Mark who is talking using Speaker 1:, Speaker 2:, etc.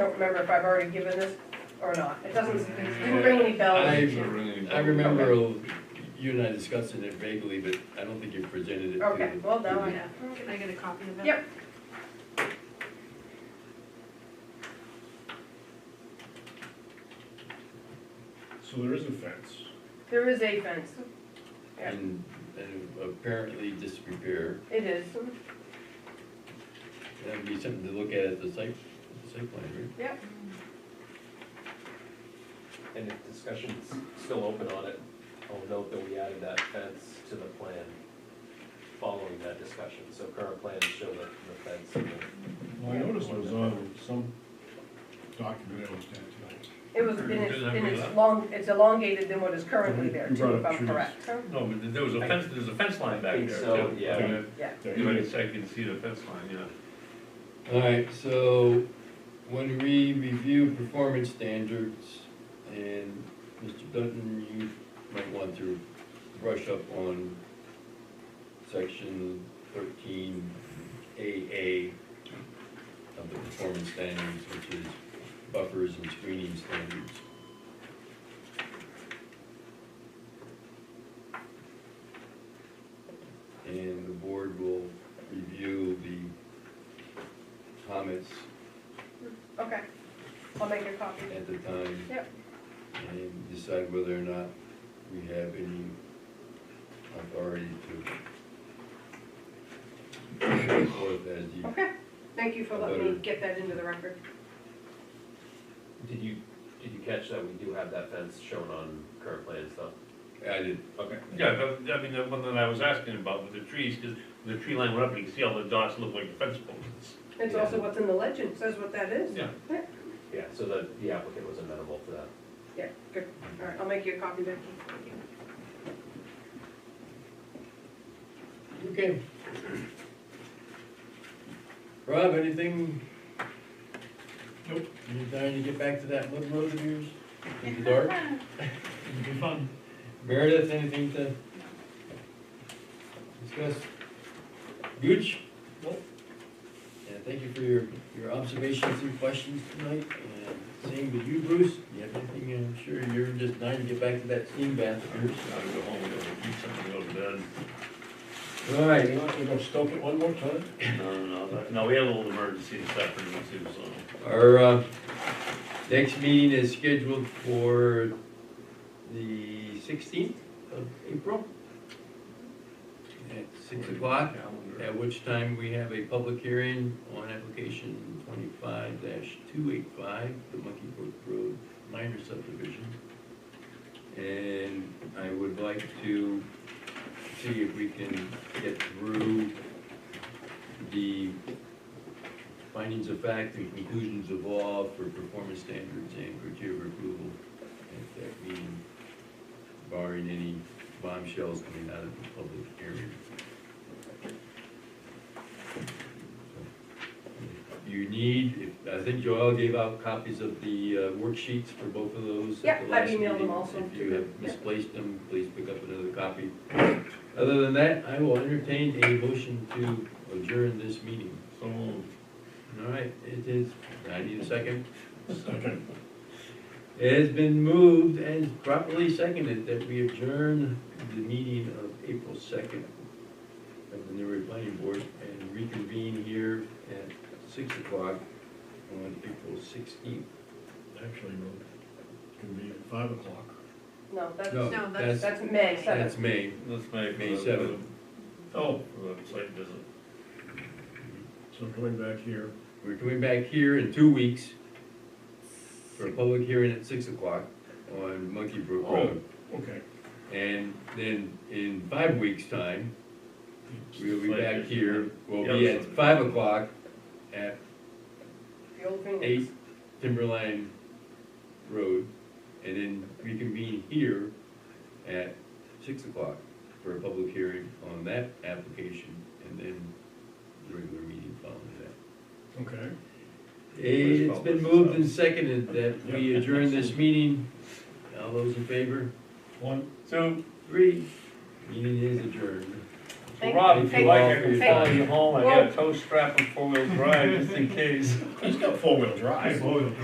Speaker 1: don't remember if I've already given this or not. It doesn't, didn't ring any
Speaker 2: I-
Speaker 1: bells.
Speaker 2: I
Speaker 3: I
Speaker 2: remember
Speaker 3: remember you and I discussing it vaguely, but I don't think you presented it to.
Speaker 1: Okay, well, now I
Speaker 4: Yeah, can I get a copy of it?
Speaker 1: Yep.
Speaker 5: So there is a fence.
Speaker 1: There is a fence. Yeah,
Speaker 3: And, and apparently disrepair,
Speaker 1: it is.
Speaker 3: that would be something to look at at the site, site plan,
Speaker 6: And if discussion's still open on it, I'll note that we added that fence to the plan following that discussion. So current plans show that the fence. and the-
Speaker 5: Well, I noticed it was on some document that was done tonight.
Speaker 1: It was, and it's, and it's long, it's elongated than what is currently there too, if I'm correct.
Speaker 7: No, but there was a fence, there's a fence line back there.
Speaker 6: So,
Speaker 7: too.
Speaker 6: yeah,
Speaker 1: Yeah.
Speaker 7: You might say you can see the fence line, yeah.
Speaker 3: right? Alright, so when we review performance standards, and Mr. Dutton, you might want to brush up on section thirteen AA of the performance standards, which is buffers and screening standards. And the board will review the comments
Speaker 1: Okay. I'll make a copy.
Speaker 3: at the time.
Speaker 1: Yep.
Speaker 3: And decide whether or not we have any authority to show forth as the,
Speaker 1: Okay. Thank you for letting me get that into the record.
Speaker 6: did you, did you catch that we do have that fence shown on current plans though?
Speaker 3: I did,
Speaker 6: Okay.
Speaker 7: Yeah, that, I mean, the one that I was asking about with the trees, because the tree line went up, and you can see all the dots look like fence posts.
Speaker 1: It's also what's in the legend, says what that is.
Speaker 7: Yeah.
Speaker 6: Yeah, so the, the applicant was amenable to that.
Speaker 1: Yeah, good. All right, I'll make you a copy, Becky. Thank you.
Speaker 3: okay. Rob, anything?
Speaker 5: Nope.
Speaker 3: You dying to get back to that mud road of yours in the dark?
Speaker 5: It'd be fun.
Speaker 3: Meredith, anything to discuss? Gooch?
Speaker 5: Nope.
Speaker 3: Yeah, thank you for your, your observations and questions tonight, and same with you, Bruce. You have anything, I'm sure you're just dying to get back to that steam bath
Speaker 7: I
Speaker 3: of
Speaker 7: was
Speaker 3: yours.
Speaker 7: trying to go home, and go eat something, go to bed.
Speaker 3: All
Speaker 5: You're
Speaker 3: right,
Speaker 5: not gonna go stump it one more time?
Speaker 7: No, no, no, no, we had a little emergency this afternoon too, so.
Speaker 3: our, uh, next meeting is scheduled for the sixteenth of April at six o'clock. At which time we have a public hearing on application twenty-five two eight five, the Monkey Brook Road minor subdivision. And I would like to see if we can get through the findings of fact and conclusions of law for performance standards and criteria of approval at that meeting, barring any bombshells coming out of the public hearing. You need, if- I think Joel gave out copies of the uh, worksheets for both of those. at
Speaker 1: Yeah,
Speaker 3: the
Speaker 1: I've emailed
Speaker 3: last
Speaker 1: them
Speaker 3: meeting.
Speaker 1: also
Speaker 3: If
Speaker 1: to
Speaker 3: you
Speaker 1: them,
Speaker 3: have
Speaker 1: yeah.
Speaker 3: misplaced them, please pick up another copy. Other than that, I will entertain a motion to adjourn this meeting.
Speaker 7: So moved.
Speaker 3: All right, it is, I need a second.
Speaker 5: Second.
Speaker 3: It has been moved and properly seconded that we adjourn the meeting of April second of the Newbury Planning Board and reconvene here at six o'clock on April sixteenth.
Speaker 5: Actually, no, it could be at five o'clock.
Speaker 1: No,
Speaker 3: No,
Speaker 1: that's,
Speaker 4: No,
Speaker 3: that's,
Speaker 1: that's May
Speaker 3: that's
Speaker 1: seventh.
Speaker 3: May.
Speaker 7: That's my.
Speaker 3: May seventh.
Speaker 7: Oh, for the site visit.
Speaker 5: So coming back here,
Speaker 3: We're coming back here in two weeks for a public hearing at six o'clock on Monkey Brook Road.
Speaker 5: okay.
Speaker 3: And then in five weeks' time, we'll be back here, we'll be
Speaker 7: Yeah.
Speaker 3: at five o'clock at
Speaker 1: The old thing.
Speaker 3: eight Timberline Road, and then reconvene here at six o'clock for a public hearing on that application, and then the regular meeting following that.
Speaker 5: Okay.
Speaker 3: It's been moved and seconded that we adjourn this meeting. All those in favor?
Speaker 5: One,
Speaker 7: So,
Speaker 3: Three. Meeting is adjourned.
Speaker 1: Thank-
Speaker 7: Rob, if
Speaker 3: thank
Speaker 7: you like,
Speaker 3: you.
Speaker 7: I can follow you home, I got
Speaker 1: Whoa.
Speaker 7: a tow strap and four-wheel drive, just in case.
Speaker 5: he's got four-wheel drive.